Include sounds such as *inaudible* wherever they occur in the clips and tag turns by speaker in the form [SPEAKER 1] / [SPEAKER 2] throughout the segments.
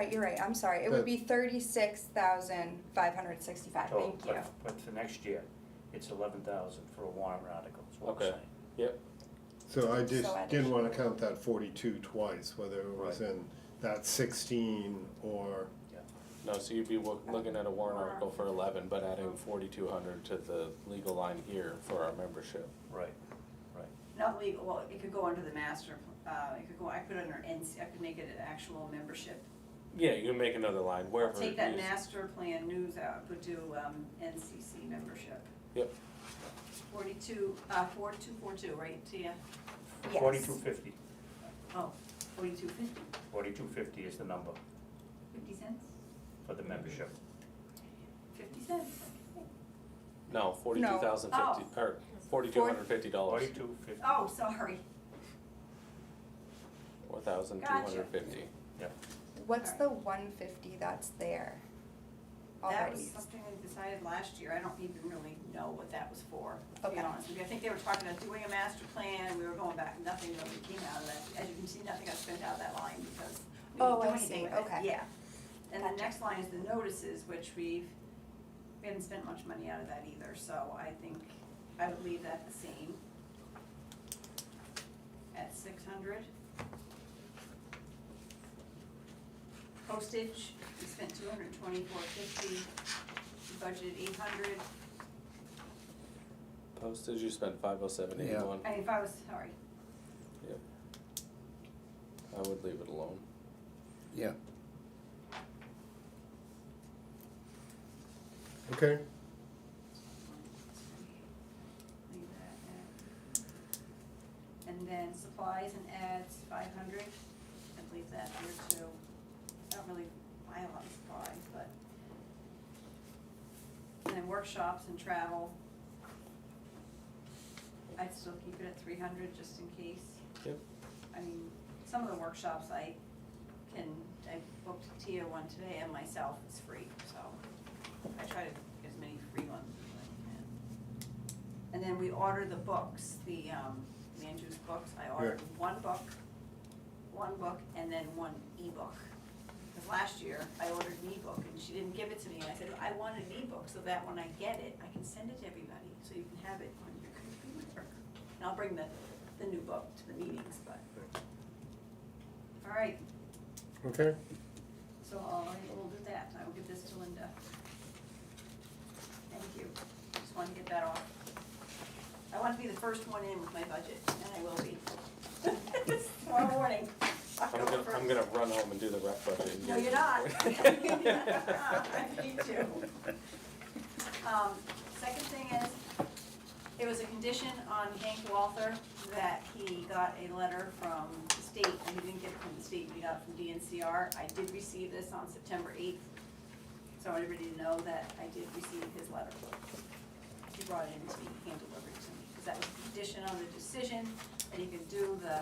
[SPEAKER 1] Right, you're right, I'm sorry. It would be thirty-six thousand five hundred sixty-five,
[SPEAKER 2] total,
[SPEAKER 1] thank you.
[SPEAKER 2] but, but for next year, it's eleven thousand for a warrant article, is what I'm
[SPEAKER 3] Okay.
[SPEAKER 2] saying.
[SPEAKER 4] So I just
[SPEAKER 1] So
[SPEAKER 4] didn't wanna
[SPEAKER 1] additional.
[SPEAKER 4] count that forty-two twice, whether it was in that sixteen or,
[SPEAKER 3] No, so you'd be wo- looking at a warrant article for eleven, but adding forty-two hundred to the legal line here for our membership.
[SPEAKER 2] Right,
[SPEAKER 5] Not legal, well, it could go under the master, pl- uh, it could go, I could under NC, I could make it an actual membership.
[SPEAKER 3] Yeah, you can make another line wherever.
[SPEAKER 5] Take
[SPEAKER 3] it
[SPEAKER 5] that
[SPEAKER 3] is.
[SPEAKER 5] master plan news out, but do, um, NCC membership.
[SPEAKER 3] Yep.
[SPEAKER 5] Forty-two, uh, four, two, four, two, right, Tia?
[SPEAKER 1] Yes.
[SPEAKER 2] forty-two fifty,
[SPEAKER 5] Oh, forty-two fifty,
[SPEAKER 2] forty-two fifty is the number
[SPEAKER 5] fifty cents,
[SPEAKER 2] for the membership.
[SPEAKER 5] fifty cents, okay.
[SPEAKER 3] No, forty-two thousand fifty, or forty-two hundred fifty dollars,
[SPEAKER 2] Forty-two fifty,
[SPEAKER 5] Oh, sorry,
[SPEAKER 3] four thousand two hundred fifty.
[SPEAKER 1] What's the one fifty that's there
[SPEAKER 5] that
[SPEAKER 1] already?
[SPEAKER 5] was something they decided last year, I don't even really know what that was for, to be
[SPEAKER 1] Okay.
[SPEAKER 5] honest with you. I think they were talking about doing a master plan, we were going back, nothing really came out of that, as you can see, nothing got spent out of that line because we
[SPEAKER 1] Oh,
[SPEAKER 5] didn't do
[SPEAKER 1] I
[SPEAKER 5] anything
[SPEAKER 1] see.
[SPEAKER 5] with it.
[SPEAKER 1] Okay.
[SPEAKER 5] Yeah, and the
[SPEAKER 1] Gotcha.
[SPEAKER 5] next line is the notices, which we've, we haven't spent much money out of that either, so I think I would leave that the same. At six hundred. Postage, we spent two hundred twenty-four fifty, we budgeted eight hundred,
[SPEAKER 3] Postage, you spent five oh seven eighty-one,
[SPEAKER 5] I mean, if I was, sorry,
[SPEAKER 3] I would leave it alone.
[SPEAKER 6] Yeah.
[SPEAKER 4] okay?
[SPEAKER 5] leave that at. And then supplies and ads, five hundred, I'd leave that there too, I don't really buy a lot of supplies, but. And then workshops and travel. I'd still keep it at three hundred just in case.
[SPEAKER 3] Yep.
[SPEAKER 5] I mean, some of the workshops I can, I booked Tia one today and myself, it's free, so I try to get as many free ones as I can. And then we order the books, the, um, Andrew's books, I ordered one book, one book, and then one ebook. Cause last year, I ordered an ebook, and she didn't give it to me, and I said, I want an ebook, so that when I get it, I can send it to everybody, so you can have it on your computer. And I'll bring the, the new book to the meetings, but. All right,
[SPEAKER 4] Okay,
[SPEAKER 5] so I'll, we'll do that, I will give this to Linda. Thank you, just wanted to get that off. I want to be the first one in with my budget, and I will be. *laughs* Tomorrow morning,
[SPEAKER 3] I'm
[SPEAKER 5] October
[SPEAKER 3] gonna,
[SPEAKER 5] first.
[SPEAKER 3] I'm gonna run home and do the rep budget. *laughs* and
[SPEAKER 5] No,
[SPEAKER 3] get-
[SPEAKER 5] you're not. *laughs*
[SPEAKER 3] *laughs*
[SPEAKER 5] I need to. Um, second thing is, it was a condition on Hank Walther that he got a letter from the state, and he didn't get it from the state, he got it from DNCR. I did receive this on September eighth, so I want everybody to know that I did receive his letter. He brought it in to me, hand-delivered it to me, because that was a condition on the decision, that he could do the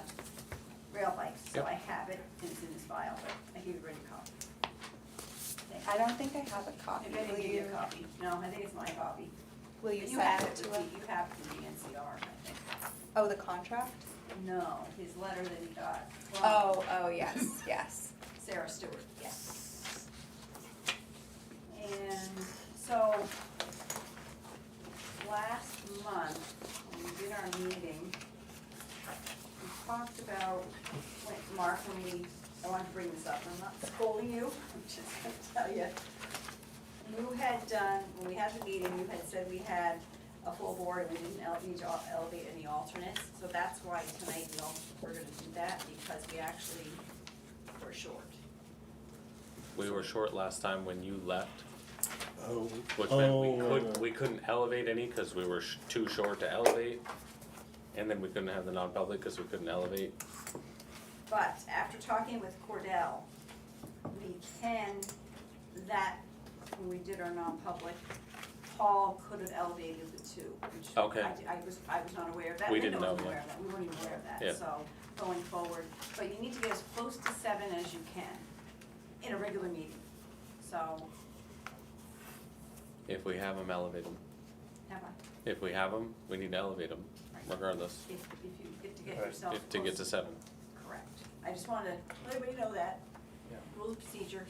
[SPEAKER 5] rail bikes. So
[SPEAKER 3] Yep.
[SPEAKER 5] I have it, and it's in his file, but I gave everybody a copy.
[SPEAKER 1] I don't think I have a copy.
[SPEAKER 5] I bet
[SPEAKER 1] Will
[SPEAKER 5] they give you
[SPEAKER 1] you-
[SPEAKER 5] a copy. No, I think it's my copy.
[SPEAKER 1] Will you
[SPEAKER 5] have
[SPEAKER 1] send it to
[SPEAKER 5] with
[SPEAKER 1] us?
[SPEAKER 5] the- You have it from the NCR, I think.
[SPEAKER 1] Oh, the contract?
[SPEAKER 5] No, his letter that he got from
[SPEAKER 1] Oh, oh,
[SPEAKER 5] *laughs*
[SPEAKER 1] yes, yes.
[SPEAKER 5] Sarah Stewart, yes. And so, last month, when we did our meeting, we talked about, when Mark, when we, I want to bring this up, I'm not scolding you, *laughs* I'm just gonna tell you. You had done, when we had the meeting, you had said we had a full board and we didn't ele- need to el- elevate any alternates, so that's why tonight we all, we're gonna do that, because we actually were short.
[SPEAKER 3] We were short last time when you left,
[SPEAKER 4] oh,
[SPEAKER 3] which meant
[SPEAKER 4] Oh,
[SPEAKER 3] we
[SPEAKER 4] right,
[SPEAKER 3] couldn't,
[SPEAKER 4] right.
[SPEAKER 3] we couldn't elevate any because we were sh- too short to elevate. And then we couldn't have the non-public because we couldn't elevate.
[SPEAKER 5] But after talking with Cordell, we can, that, when we did our non-public, Paul could have elevated the two, which I,
[SPEAKER 3] Okay.
[SPEAKER 5] di- I was, I was not aware of that.
[SPEAKER 3] We didn't
[SPEAKER 5] Linda wasn't
[SPEAKER 3] know, yeah.
[SPEAKER 5] aware of that. We weren't even aware of
[SPEAKER 3] Yeah.
[SPEAKER 5] that, so going forward, but you need to get as close to seven as you can in a regular meeting. So,
[SPEAKER 3] If we have them, elevate them.
[SPEAKER 5] have
[SPEAKER 3] If we have them, we need to elevate them
[SPEAKER 5] a,
[SPEAKER 3] regardless,
[SPEAKER 5] if, if you, if to get
[SPEAKER 2] Right.
[SPEAKER 5] yourself
[SPEAKER 3] if to get to
[SPEAKER 5] close-
[SPEAKER 3] seven.
[SPEAKER 5] Correct. I just wanted to let everybody know that.
[SPEAKER 2] Yeah.
[SPEAKER 5] Rules of procedure,